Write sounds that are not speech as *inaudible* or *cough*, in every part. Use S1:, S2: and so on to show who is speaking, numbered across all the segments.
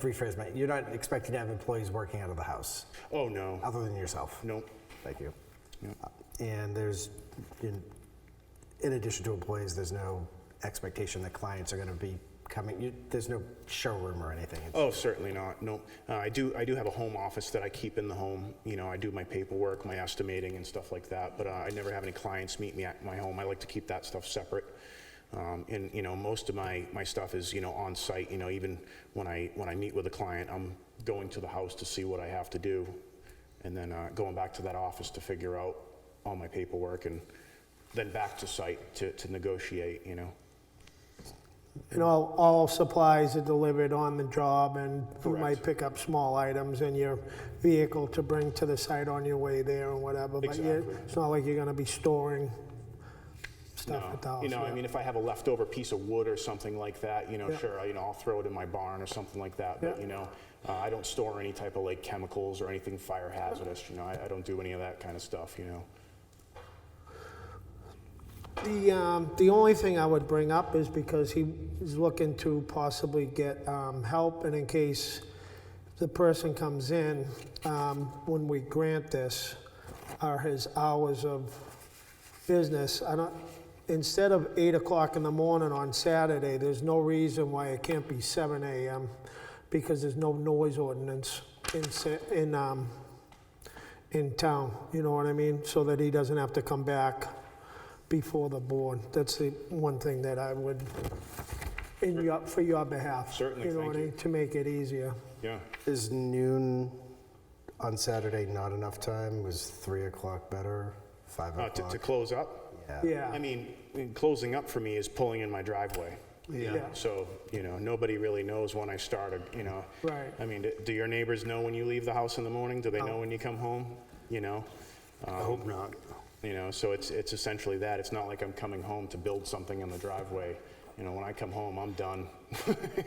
S1: rephrase my, you're not expecting to have employees working out of the house,
S2: Oh, no.
S1: other than yourself?
S2: Nope.
S1: Thank you. Uh, And there's, in in addition to employees, there's no expectation that clients are going to be coming, you- there's no showroom or anything? It's-
S2: Oh, certainly not. No, uh, I do. I do have a home office that I keep in the home. You know, I do my paperwork, my estimating, and stuff like that. But uh, I never have any clients meet me at my home. I like to keep that stuff separate. Um, and you know, most of my my stuff is you know on site. You know, even when I when I meet with a client, I'm going to the house to see what I have to do, and then uh, going back to that office to figure out all my paperwork, and then back to site to to negotiate. You know.
S3: And all, all supplies are delivered on the job, and you might pick up small items in your vehicle to bring to the site on your way there and whatever. But you-
S2: Exactly.
S3: it's not like you're gonna be storing stuff at the house.
S2: You know, I
S3: yeah.
S2: mean, if I have a leftover piece of wood or something like that, you know,
S3: Yeah.
S2: sure, I- you know, I'll throw it in my barn or something like that. But
S3: Yeah.
S2: you know, uh, I don't store any type of like chemicals or anything fire hazardous. You know, I, I don't do any of that kind of stuff. You know.
S3: The, um, the only thing I would bring up is because he is looking to possibly get, um, help and in case the person comes in, um, when we grant this, are his hours of business. I don't, instead of eight o'clock in the morning on Saturday, there's no reason why it can't be seven AM because there's no noise ordinance in, Sa- in, um, in town, you know what I mean? So that he doesn't have to come back before the board. That's the one thing that I would, in your, for your behalf.
S2: Certainly,
S3: know
S2: thank
S3: what I
S2: you.
S3: mean, To make it easier.
S2: Yeah.
S1: Is noon on Saturday not enough time? Was 3 o'clock better? 5
S2: Uh, to, to
S1: o'clock?
S2: close up.
S3: Yeah.
S2: I mean, in closing up for me is pulling in my driveway.
S3: Yeah.
S2: So you know, nobody really knows when I started. You know.
S3: Right.
S2: I mean, do, do your neighbors know when you leave the house in the morning? Do they know when you come home? You know. Uh,
S4: I hope not.
S2: You know, so it's, it's essentially that. It's not like I'm coming home to build something in the driveway. You know, when I come home, I'm done. *laughs*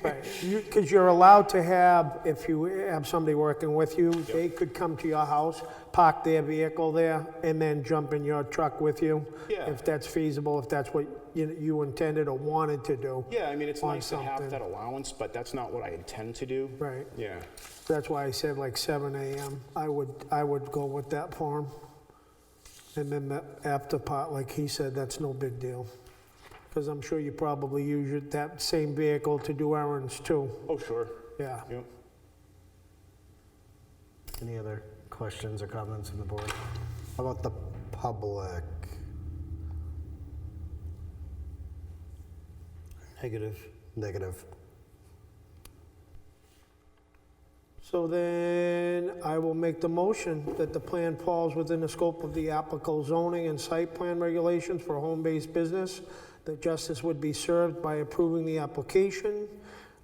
S3: Right, because you're allowed to have, if you have somebody working with you, they could come to your house, park their vehicle there, and then jump in your truck with you.
S2: Yeah.
S3: If that's feasible, if that's what you you intended or wanted to do.
S2: Yeah, I mean, it's
S3: On
S2: nice to have
S3: something.
S2: that allowance, but that's not what I intend to do.
S3: Right,
S2: Yeah.
S3: that's why I said like seven AM, I would, I would go with that for 'em. And then the after part, like he said, that's no big deal. Because I'm sure you probably use your- that same vehicle to do errands too,
S2: Oh, sure.
S3: yeah.
S2: Yep.
S1: Any other questions or comments from the board? How about the public?
S4: Negative.
S1: Negative.
S3: So then I will make the motion that the plan falls within the scope of the applicable zoning and site plan regulations for home-based business, that justice would be served by approving the application.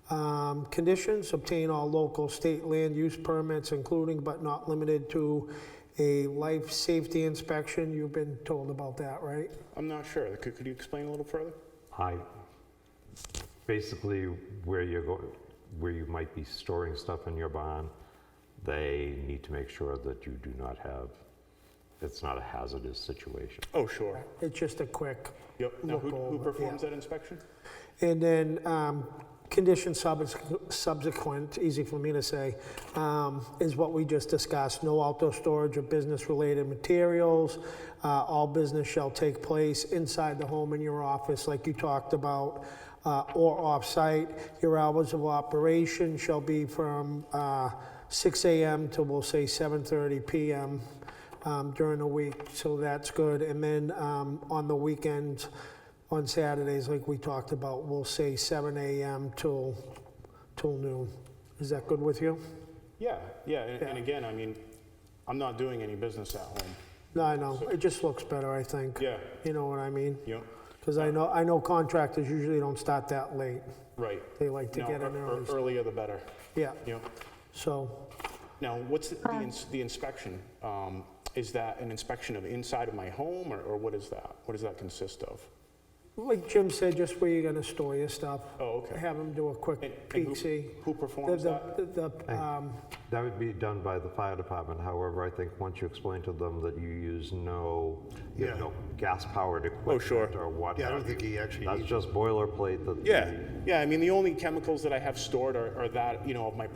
S3: Um, Conditions, obtain all local state land use permits, including but not limited to a life safety inspection. You've been told about that, right?
S2: I'm not sure. Could, could you explain a little further?
S5: I, basically, where you're going, where you might be storing stuff in your barn, they need to make sure that you do not have, it's not a hazardous situation.
S2: Oh, sure.
S3: It's just a quick.
S2: Yep. Now, who,
S3: Look
S2: who
S3: over,
S2: performs
S3: yeah.
S2: that inspection?
S3: And then um, condition sub- subsequent, easy for me to say, um, is what we just discussed. No outdoor storage of business-related materials. Uh, All business shall take place inside the home in your office, like you talked about, uh, or off-site. Your hours of operation shall be from uh, 6 AM to, we'll say, 7:30 PM um, during the week, so that's good. And then um, on the weekends, on Saturdays, like we talked about, we'll say 7 AM till, till noon. Is that good with you?
S2: Yeah, yeah. And, and
S3: Yeah.
S2: again, I mean, I'm not doing any business at home.
S3: No, I know, it just looks better, I think.
S2: Yeah.
S3: You know what I mean?
S2: Yep.
S3: Because I know, I know contractors usually don't start that late.
S2: Right.
S3: They like to
S2: No,
S3: get in
S2: ear-
S3: there.
S2: ear-
S3: and-
S2: earlier the better.
S3: Yeah,
S2: Yep.
S3: so,
S2: Now, what's the, the, ins- the inspection? Um, is that an inspection of inside of my home, or, or what is that? What does that consist of?
S3: like Jim said, just where you're gonna store your stuff.
S2: Oh, okay.
S3: Have them do a
S2: And-
S3: quick
S2: and who-
S3: peek see.
S2: Who
S3: The,
S2: performs that?
S3: the, the, um,
S5: That would be done by the fire department, however, I think once you explain to them that you use no, you
S4: Yeah. Oh,
S5: have no gas-powered equipment.
S2: sure.
S5: Or what
S4: Yeah, I don't
S5: have
S4: think
S5: you,
S4: he actually
S5: That's
S4: needs
S5: just boilerplate that.
S2: Yeah, yeah, I mean, the only chemicals that I have stored are, are that, you know, of my